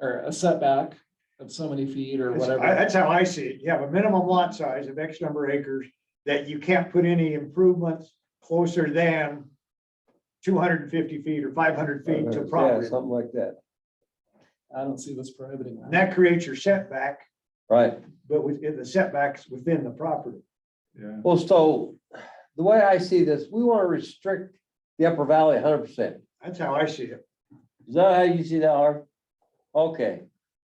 or a setback of so many feet or That's- whatever. I- That's how I see it. You have a minimum lot size of X number of acres that you can't put any improvements closer than two hundred and fifty feet or five hundred feet to Yeah, property. something like that, I don't see this prohibiting And that. That creates your setback, right? but within the setbacks within the property. Yeah. Well, so the way I see this, we want to restrict the upper valley hundred percent. That's how I see it. Is that how you see that, Harv? Okay,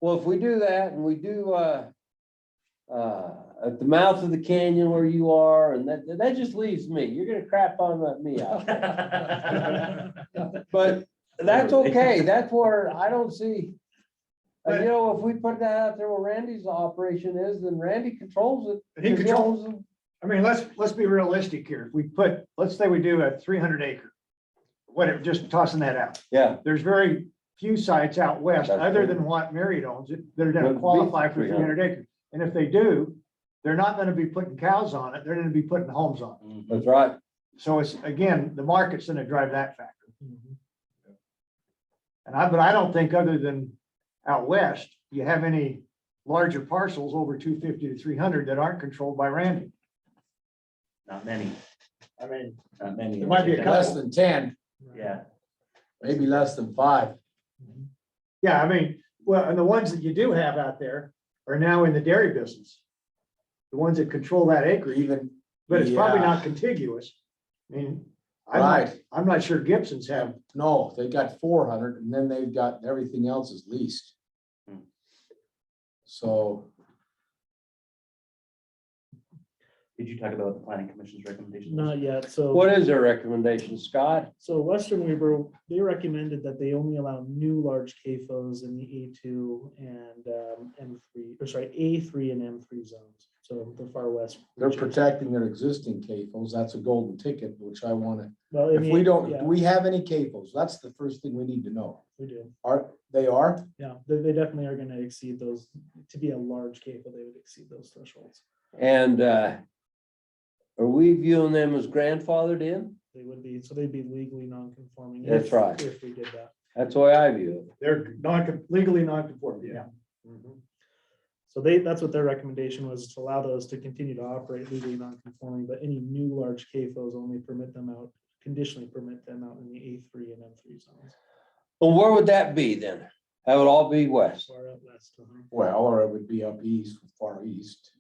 well, if we do that and we do, uh, uh, at the mouth of the canyon where you are, and that, that just leaves me, you're gonna crap on that me out there. But that's okay, that's where I don't see. And you know, if we put that out there where Randy's operation is, then Randy controls it. And he controls, I mean, let's, let's be realistic here. If we put, let's say we do a three hundred acre. Whatever, just tossing that out. Yeah, There's very few sites out west, That's other true. than what Marriott owns, that are Would gonna be qualify for three 300. hundred acres. And if they do, they're not gonna be putting cows on it, they're gonna be putting homes on it. that's right. So it's, again, the market's gonna drive that factor. And I, but I don't think other than out west, you have any larger parcels over two fifty to three hundred that aren't controlled by Randy. Not many, I mean, not many. There might be a couple. Less than ten, Yeah, maybe less than five. yeah, I mean, well, and the ones that you do have out there are now in the dairy business. The ones that control that acre even, but it's probably Yeah. not contiguous. I mean, I'm not, Right. I'm not sure Gibson's have, No, they got four hundred and then they've got, everything else is leased. Hmm. So, did you talk about the planning commission's recommendations? Not yet, so, What is their recommendation, Scott? so Western Weaver, they recommended that they only allow new large CAFOs in the A two and um, M three, or sorry, A three and M three zones, so the far west. they're region. protecting their existing CAFOs. That's a golden ticket, which I wanna, Well, in if the- we don't, yeah, do we have any CAFOs? That's the first thing we need to know. We do, Are, they are? yeah, they, they definitely are gonna exceed those, to be a large CAFO, they would exceed those thresholds, And, uh, are we viewing them as grandfathered in? they would be, so they'd be legally non-conforming. That's if- right. If we did that, That's the way I view it. they're non, legally non-conforming, yeah. so they, that's what their recommendation was, to allow those to continue to operate legally non-conforming, but any new large CAFOs only permit them out, conditionally permit them out in the A three and M three zones, Well, where would that be then? That would all be west. far out west. uh-huh. Well, or it would be up east, far east.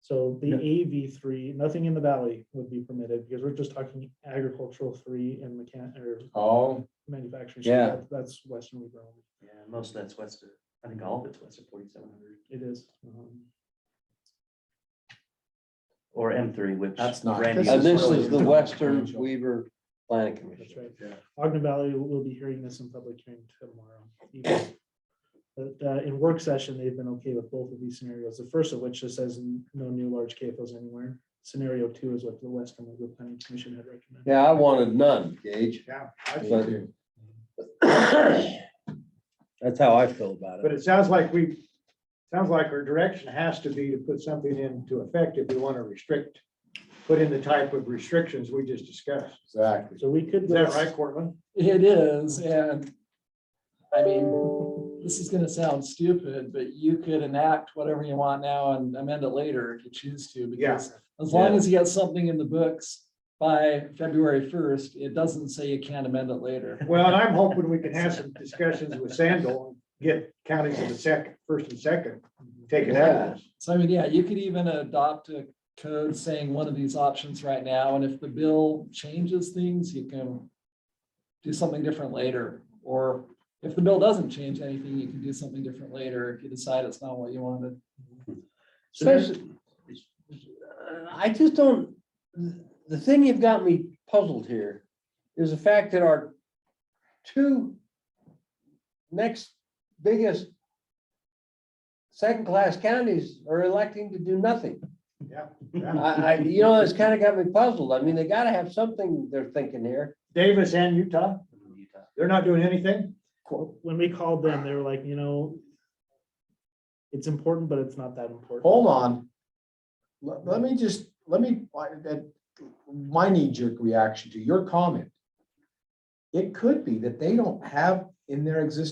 So the Yeah. AV three, nothing in the valley would be permitted, because we're just talking agricultural three and mechan, or Oh, manufacturing. Yeah. That's Western Weaver, only. Yeah, most of that's west of, I think all of it's west of forty-seven hundred, it is. um, or M three, which. That's not- Randy This And was this really- is the Western Weaver Planning That's Commission. right. Yeah. Ogden Valley will- will be hearing this in public hearing tomorrow. evening. But uh, in work session, they've been okay with both of these scenarios. The first of which just says n- no new large CAFOs anywhere. Scenario two is what the Western Weaver Planning Commission had recommended. Yeah, I wanted none, Gage. Yeah, me But- too. That's how I feel about But it. it sounds like we, sounds like our direction has to be to put something into effect if we want to restrict, put in the type of restrictions we just discussed. exactly. So we could. Is go that right, Cortland? It is, and I mean, this is gonna sound stupid, but you could enact whatever you want now and amend it later if you choose to, Yeah, because as long as you got something in the books by February first, it doesn't say you can't amend it later. well, and I'm hoping we can have some discussions with Sandal, get counties in the second, first and second, taken out of this. So I mean, yeah, you could even adopt a code saying one of these options right now, and if the bill changes things, you can do something different later, or if the bill doesn't change anything, you can do something different later if you decide it's not what you wanted. Especially- uh, I just don't, the thing you've got me puzzled here is the fact that our two next biggest second-class counties are electing to do nothing. Yeah. I, I, you know, it's kind of got me puzzled. I mean, they gotta have something they're thinking here. Davis and Utah, Utah. they're not doing anything? When we called them, they were like, you know, it's important, but it's not that important. Hold on. Let, let me just, let me, I- that, my knee jerk reaction to your comment. It could be that they don't have in their existing